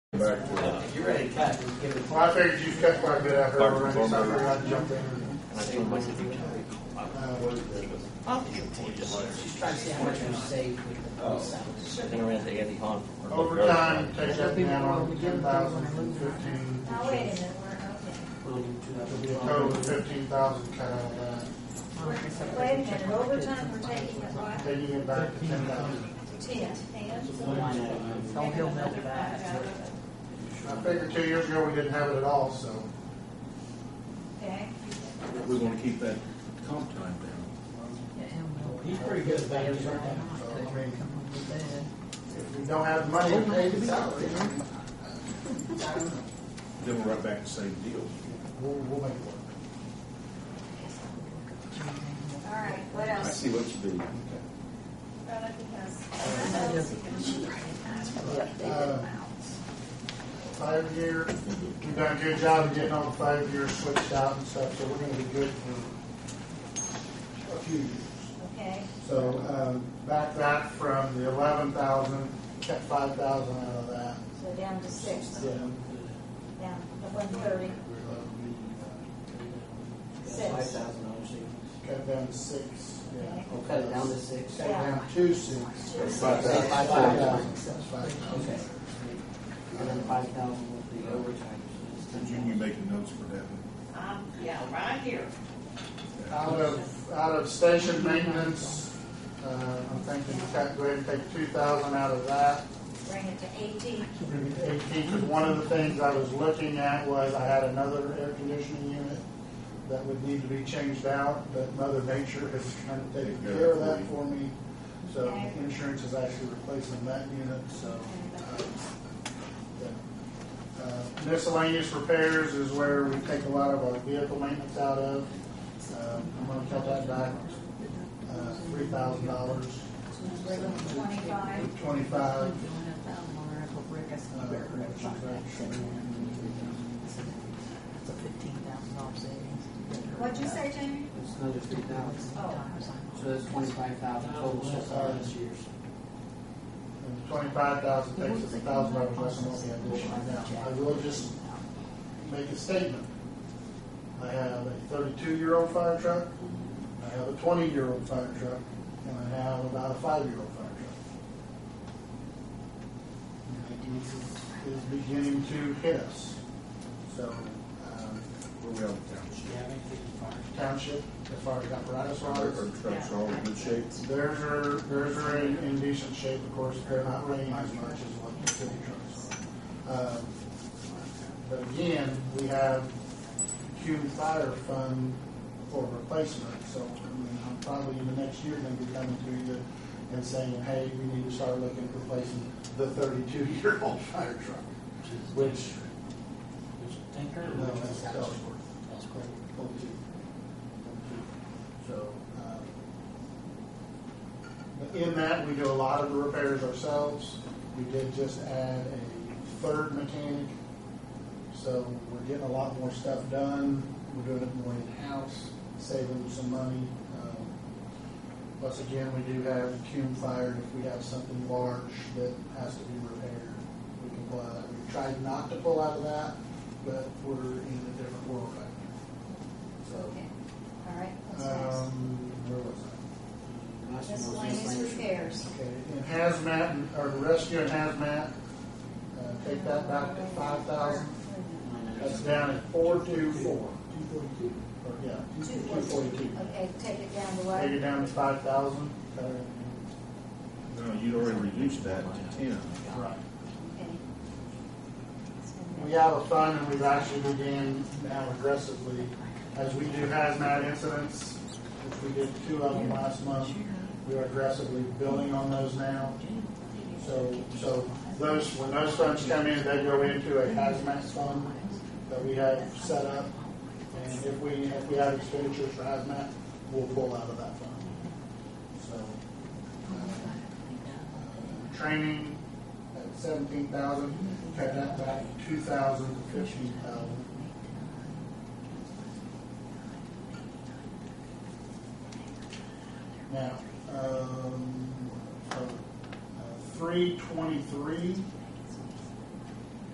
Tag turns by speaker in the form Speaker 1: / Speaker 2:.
Speaker 1: back to.
Speaker 2: You ready to cut, just give it.
Speaker 3: Well, I figured you cut quite a bit out of her already, so I figured I'd jump in. and, uh, what is it?
Speaker 2: She's trying to see how much you save with the police hours.
Speaker 3: Overtime, take that down, ten thousand from fifteen.
Speaker 4: Now, wait a minute, we're,
Speaker 3: It'll be a total of fifteen thousand cut out of that,
Speaker 4: okay. We're- Wait a minute, overtime, we're taking it what?
Speaker 3: taking it back to ten thousand.
Speaker 4: Ten, ten?
Speaker 5: Don't he'll melt it back.
Speaker 3: I figured two years ago, we didn't have it at all, so.
Speaker 4: Okay.
Speaker 1: We're gonna keep that comp time down.
Speaker 2: He's pretty good about his work.
Speaker 3: So, I mean,
Speaker 5: Come on, with that.
Speaker 3: if we don't have money, we pay the salary.
Speaker 1: Then we're right back to the same deal.
Speaker 3: We'll, we'll make it work.
Speaker 4: All right, what
Speaker 1: I
Speaker 4: else?
Speaker 1: see what you do.
Speaker 4: Well, I think that's-
Speaker 3: Uh, Five year, we've done a good job of getting all the five years switched out and stuff, so we're gonna be good for a few years.
Speaker 4: Okay,
Speaker 3: So, um, back that from the eleven thousand, kept five thousand out of that.
Speaker 4: so down to six,
Speaker 3: Yeah.
Speaker 4: down to one thirty,
Speaker 2: Five
Speaker 4: six.
Speaker 2: thousand dollars.
Speaker 3: Cut down to six, yeah.
Speaker 2: We'll cut it down to six.
Speaker 3: Cut down to six.
Speaker 4: Two,
Speaker 1: Five
Speaker 4: six.
Speaker 1: thousand.
Speaker 3: Five thousand, that's five thousand.
Speaker 2: Okay. And then five thousand with the overtime. so it's
Speaker 1: Did you,
Speaker 2: 10,000.
Speaker 1: you making notes for that one?
Speaker 6: Um, yeah, right here.
Speaker 3: Out of, out of station maintenance, uh, I'm thinking cut, go ahead and take two thousand out of that.
Speaker 4: Bring it to eighteen.
Speaker 3: Eighteen, 'cause one of the things I was looking at was I had another air conditioning unit that would need to be changed out, but Mother Nature has kind of taken care of that for me. So
Speaker 4: Okay.
Speaker 3: insurance is actually replacing that unit, so. um, yeah. Uh, Miscellaneous repairs is where we take a lot of our vehicle maintenance out of. Um, I'm gonna cut that back, uh, three thousand dollars,
Speaker 4: Bring it to twenty-five.
Speaker 3: twenty-five. Uh, which is actually-
Speaker 5: It's a fifteen thousand dollar savings.
Speaker 4: What'd you say, Jamie?
Speaker 2: It's another three thousand.
Speaker 5: Oh.
Speaker 2: So that's twenty-five thousand total so far this year.
Speaker 3: And twenty-five thousand takes us a thousand dollars less than what we have going right now. I will just make a statement. I have a thirty-two-year-old fire truck, I have a twenty-year-old fire truck, and I have about a five-year-old fire truck. And it is- Is beginning to hit us. So, um,
Speaker 1: We're around the township.
Speaker 3: township, as far as apparatus
Speaker 1: Our,
Speaker 3: wise,
Speaker 1: our trucks are all in good shape.
Speaker 3: Theirs are, theirs are in, in decent shape, of course, they're not running as much as what the city trucks are. Um, But again, we have Cuban Fire Fund for replacement, so, I mean, I'm probably in the next year gonna be coming to you and saying, hey, we need to start looking at replacing the thirty-two-year-old fire truck, which, no, that's Ellsworth. That's correct. So, um, but in that, we do a lot of the repairs ourselves. We did just add a third mechanic, so we're getting a lot more stuff done. We're doing it more in-house, saving some money. Um, Plus, again, we do have cume fire, if we have something large that has to be repaired, we can pull out. We tried not to pull out of that, but we're in a different world right
Speaker 4: Okay,
Speaker 3: now.
Speaker 4: all right,
Speaker 3: So,
Speaker 4: what's next?
Speaker 3: um, where was I?
Speaker 4: Miscellaneous repairs.
Speaker 3: Okay, and hazmat, and- or rescue and hazmat, uh, take that back to five thousand, that's down at four two four. Two forty-two. Or, yeah, two
Speaker 4: Two
Speaker 3: forty-two.
Speaker 4: forty-two, okay, take it down to
Speaker 3: Take it
Speaker 4: what?
Speaker 3: down to five thousand, uh,
Speaker 1: No, you already reduced that to ten.
Speaker 3: right.
Speaker 4: Okay.
Speaker 3: We have a fund and we've actually began now aggressively, as we do hazmat incidents, which we did two of them last month, we are aggressively building on those now. So, so those, when those funds come in, they go into a hazmat fund that we have set up. And if we, if we have expenditures for hazmat, we'll pull out of that fund. So. uh, Training at seventeen thousand, cut that back two thousand to fifteen thousand. Now, um, three uh, twenty-three